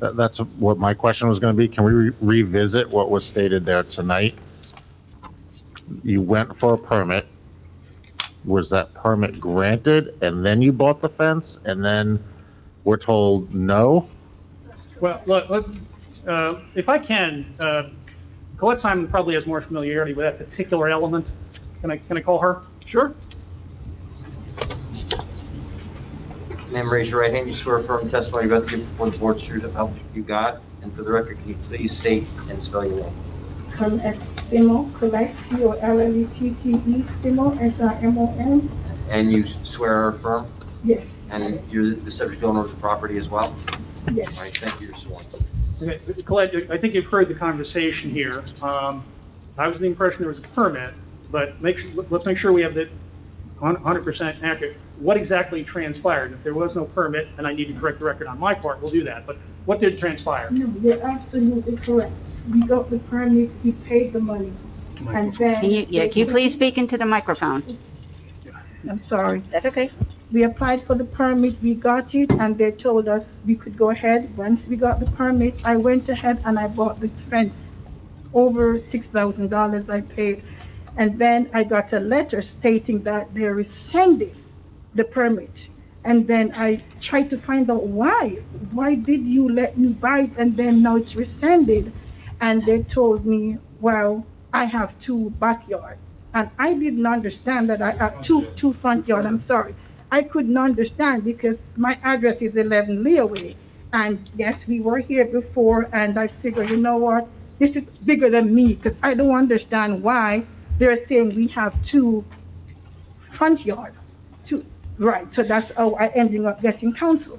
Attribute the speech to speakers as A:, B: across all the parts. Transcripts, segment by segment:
A: That, that's what my question was gonna be. Can we re- revisit what was stated there tonight? You went for a permit. Was that permit granted and then you bought the fence and then we're told no?
B: Well, look, let, uh, if I can, uh, Colette Simon probably has more familiarity with that particular element. Can I, can I call her?
C: Sure.
D: Name, raise your right hand. You swear affirm testimony you're about to give before the board is true to the help you got. And for the record, can you please state and spell your name?
E: Collect, Simo, collect, C O L L E T T E, Simo, S I M O N,
D: And you swear or affirm,
E: yes,
D: and you're the subject owner of the property as well?
E: yes.
D: All right, thank you, you're sworn.
B: Okay, Colette, I think you've heard the conversation here. Um, I was the impression there was a permit, but make, su- let's make sure we have that hun- 100% accurate. What exactly transpired? If there was no permit, and I need to correct the record on my part, we'll do that. But what did transpire?
E: No, you're absolutely correct. We got the permit, we paid the money, and then.
F: Can you, yeah, can you please speak into the microphone?
E: I'm sorry.
F: That's okay.
E: We applied for the permit, we got it, and they told us we could go ahead. Once we got the permit, I went ahead and I bought the fence. Over six thousand dollars I paid. And then I got a letter stating that they rescinded the permit. And then I tried to find out why. Why did you let me buy it and then now it's rescinded? And they told me, well, I have two backyard. And I didn't understand that I have two, two front yard, I'm sorry. I couldn't understand because my address is 11 Leeway. And yes, we were here before, and I figured, you know what? This is bigger than me because I don't understand why they're saying we have two front yard. Two, right, so that's how I ended up getting counsel.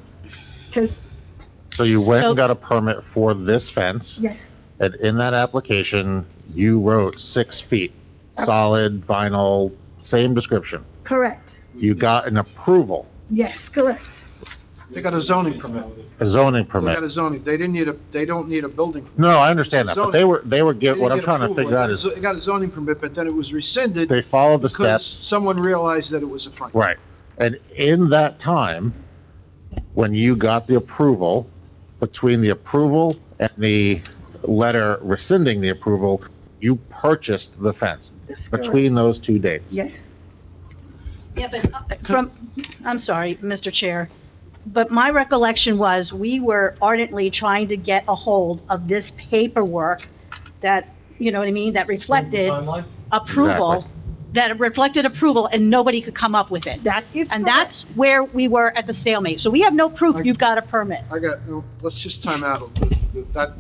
E: Because,
A: So you went
F: So-
A: and got a permit for this fence
E: yes,
A: and in that application, you wrote six feet, solid vinyl, same description.
E: correct.
A: You got an approval,
E: Yes, correct.
C: They got a zoning permit.
A: a zoning
C: They got a
A: permit.
C: zoning, they didn't need a, they don't need a building.
A: No, I understand that, but they were, they were, get-
C: They
A: what I'm
C: didn't get
A: trying to
C: approval.
A: figure out is
C: They got a zoning permit, but then it was rescinded
A: they followed the
C: because
A: steps.
C: someone realized that it was a front.
A: Right. And in that time, when you got the approval, between the approval and the letter rescinding the approval, you purchased the fence
E: That's correct.
A: between those two dates.
E: Yes.
G: Yeah, but uh, from, I'm sorry, Mr. Chair, but my recollection was we were ardently trying to get a hold of this paperwork that, you know what I mean, that reflected approval, that reflected approval and nobody could come up with it.
E: That is
G: And
E: correct.
G: that's where we were at the stalemate. So we have no proof you've got a permit.
C: I got, no, let's just time out a little bit. That,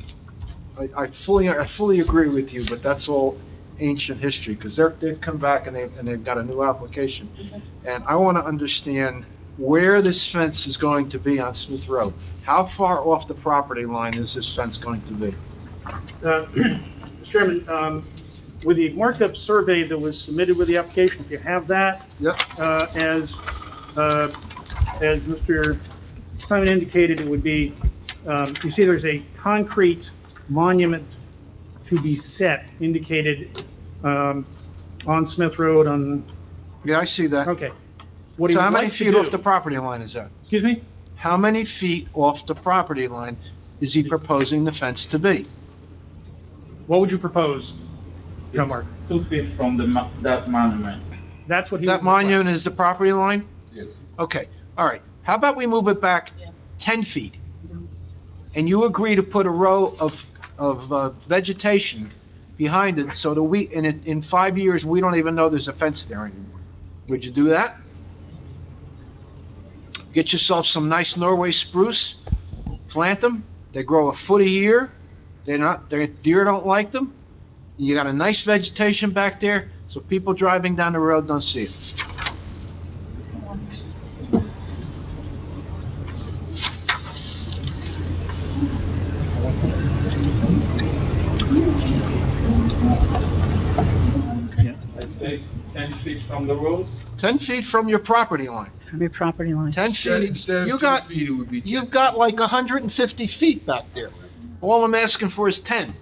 C: I, I fully, I fully agree with you, but that's all ancient history, because they're, they've come back and they, and they've got a new application. And I want to understand where this fence is going to be on Smith Road. How far off the property line is this fence going to be?
B: Uh, Mr. Chairman, um, with the markup survey that was submitted with the application, if you have that,
C: Yep,
B: uh, as, uh, as Mr. Simon indicated, it would be, um, you see there's a concrete monument to be set indicated um, on Smith Road on,
C: yeah, I see that.
B: okay. What he
C: So how
B: would
C: many
B: like to
C: feet off the
B: do,
C: property line is that?
B: excuse me?
C: How many feet off the property line is he proposing the fence to be?
B: What would you propose, John Mark?
H: It's Two feet from the, mo- that monument.
B: That's what he.
C: That
B: would request.
C: monument is the property line? Okay, all right. How about we move it back 10 feet? And you agree to put a row of, of uh, vegetation behind it so that we, in, it- in five years, we don't even know there's a fence there anymore. Would you do that? Get yourself some nice Norway spruce, plant them, they grow a foot a year, they're not, their deer don't like them. You got a nice vegetation back there, so people driving down the road don't see it.
H: I'd say ten feet from the road.
C: 10 feet from your property line.
G: Your property line.
C: 10 feet, you got, you've got like 150 feet back there. All I'm asking for is 10.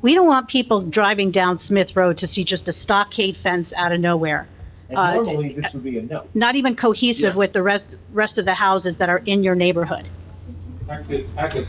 G: We don't want people driving down Smith Road to see just a stockade fence out of nowhere. Uh,
H: this would be a no.
G: Not even cohesive
C: Yeah.
G: with the rest, rest of the houses that are in your neighborhood.
H: I could, I could